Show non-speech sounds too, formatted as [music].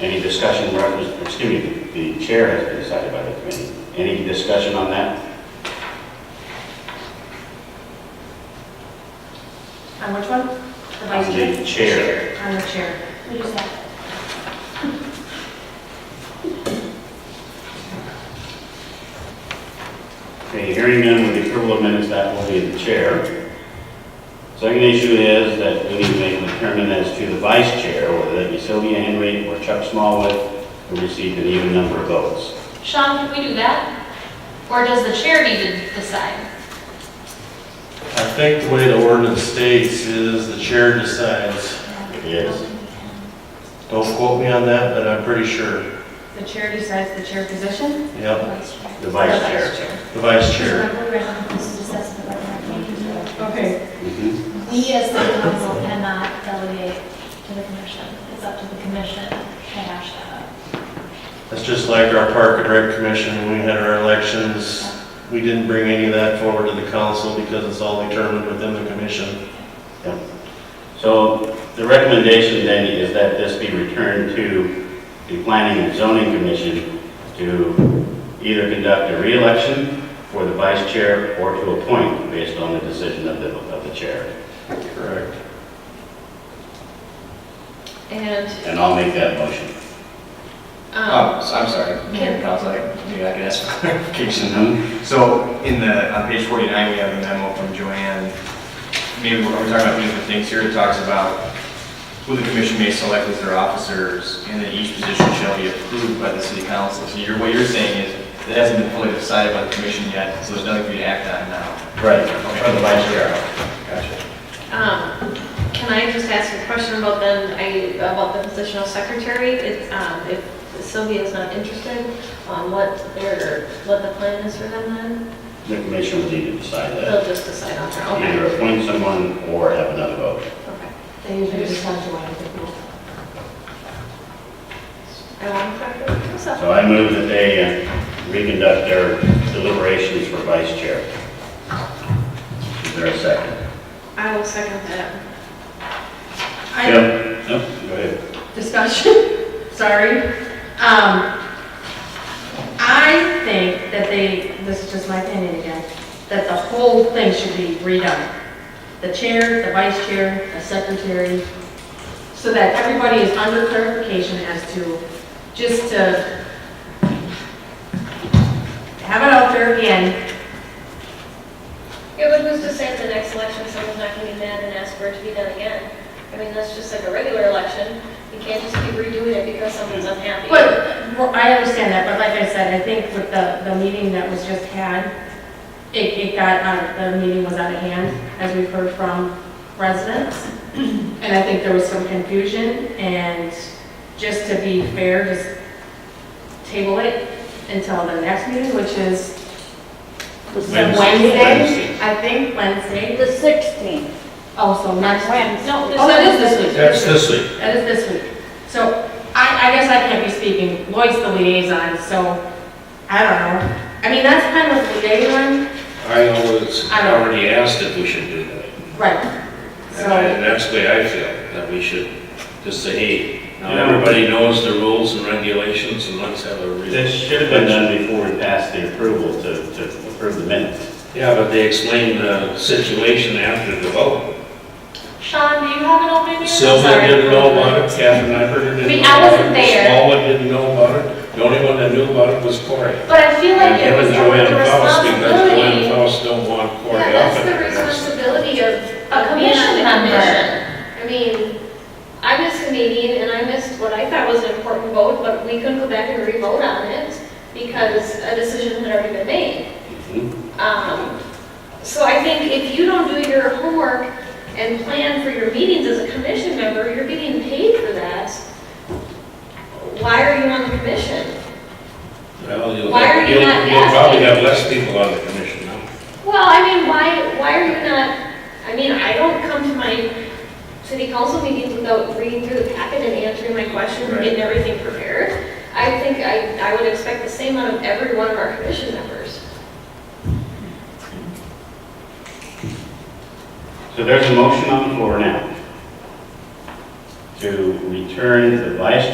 Any discussion, reference- excuse me, the chair has been decided by the committee. Any discussion on that? On which one? The On vice chair? the chair. On the chair. What is that? Okay, hearing none with the approval of minutes, that will be the chair. Second issue is that we need to determine as to the vice chair, whether that be Sylvia Henry or Chuck Smallwood, who received an even number of votes. Sean, can we do that? Or does the chair need to decide? I think the way the ordinance states is the chair decides. It is. Don't quote me on that, but I'm pretty sure. The chair decides the chair position? Yep, The vice The chair. the vice chair. Okay. Mhm. We as the council cannot delegate to the commission. It's up to the commission to hash that out. That's just like our park and rec commission, when we had our elections. We didn't bring any of that forward to the council because it's all determined within the commission. So the recommendation then is that this be returned to the Planning and Zoning Commission to either conduct a reelection for the vice chair or to appoint based on the decision of the, of the chair. Correct. And, And I'll make that motion. um, Oh, so I'm sorry, Mayor Council, I- maybe I could ask for [laughs] clarification. Mhm. So in the, on page 49, we have a memo from Joanne. Maybe we're we're talking about two different things here. It talks about who the commission may select as their officers, and that each position shall be approved by the city council. So you're, what you're saying is, it hasn't been fully decided by the commission yet, so there's nothing for you to act on now. Right. Or the vice chair. Gotcha. um, can I just ask a question about then, I, about the positional secretary? It's, um, if Sylvia's not interested, um, what their, what the plan is for them then? The commission will need to decide that. They'll just decide on their own. Either appoint someone or have another vote. Okay. They usually decide to one people. I want to correct myself. So I move that they uh, reconduct their deliberations for vice chair. Is there a second? I will second that. I, Yep. Nope, go ahead. discussion, [laughs] sorry. Um, I think that they, this is just my opinion again, that the whole thing should be redone. The chair, the vice chair, the secretary, so that everybody is under clarification as to, just to have it out there again, Yeah, but who's to say at the next election someone's not gonna be mad and ask for it to be done again? I mean, that's just like a regular election. You can't just keep redoing it because someone's unhappy. But, well, I understand that, but like I said, I think with the, the meeting that was just had, it, it got, out of- the meeting was out of hand, as we've heard from residents. And I think there was some confusion, and just to be fair, just table it until the next meeting, which is Wednesday. Wednesday, I think, Wednesday. The 16th, Oh, so next Wednesday. No, Oh, that is this week. That's this week. That is this week. So I, I guess I can't be speaking, Lloyd's the liaison, so I don't know. I mean, that's kind of the liaison, I always I know. already asked if we should do that. right? And I- So, and that's the way I feel, that we should just say, hey, now Yeah. everybody knows the rules and regulations and let's have a real. This should have been done before we passed the approval to, to approve the minutes. Yeah, but they explained the situation after the vote. Sean, do you have an open meeting? I'm Sylvia sorry. didn't know about it, Catherine Everett I didn't mean, know I about it. wasn't there. Smallwood didn't know about it. The only one that knew about it was Corey. But I feel And like it him was and the Joanne Faust, because Joanne responsibility. Faust don't want Corey Yeah, up. that's the in there. responsibility of A commission being on the member. commission. I mean, I missed a meeting and I missed what I thought was an important vote, but we couldn't go back and re-vote on it because a decision had already been made. Um, So I think if you don't do your homework and plan for your meetings as a commission member, you're getting paid for that. Why are you on the commission? Well, you'll, Why are you you'll- not you'll probably asking? have less people on the commission now. Well, I mean, why, why are you not, I mean, I don't come to my city council meetings without reading through the packet and answering my questions and getting everything prepared. I think I, I would expect the same out of every one of our commission members. So there's a motion on the floor now to return the vice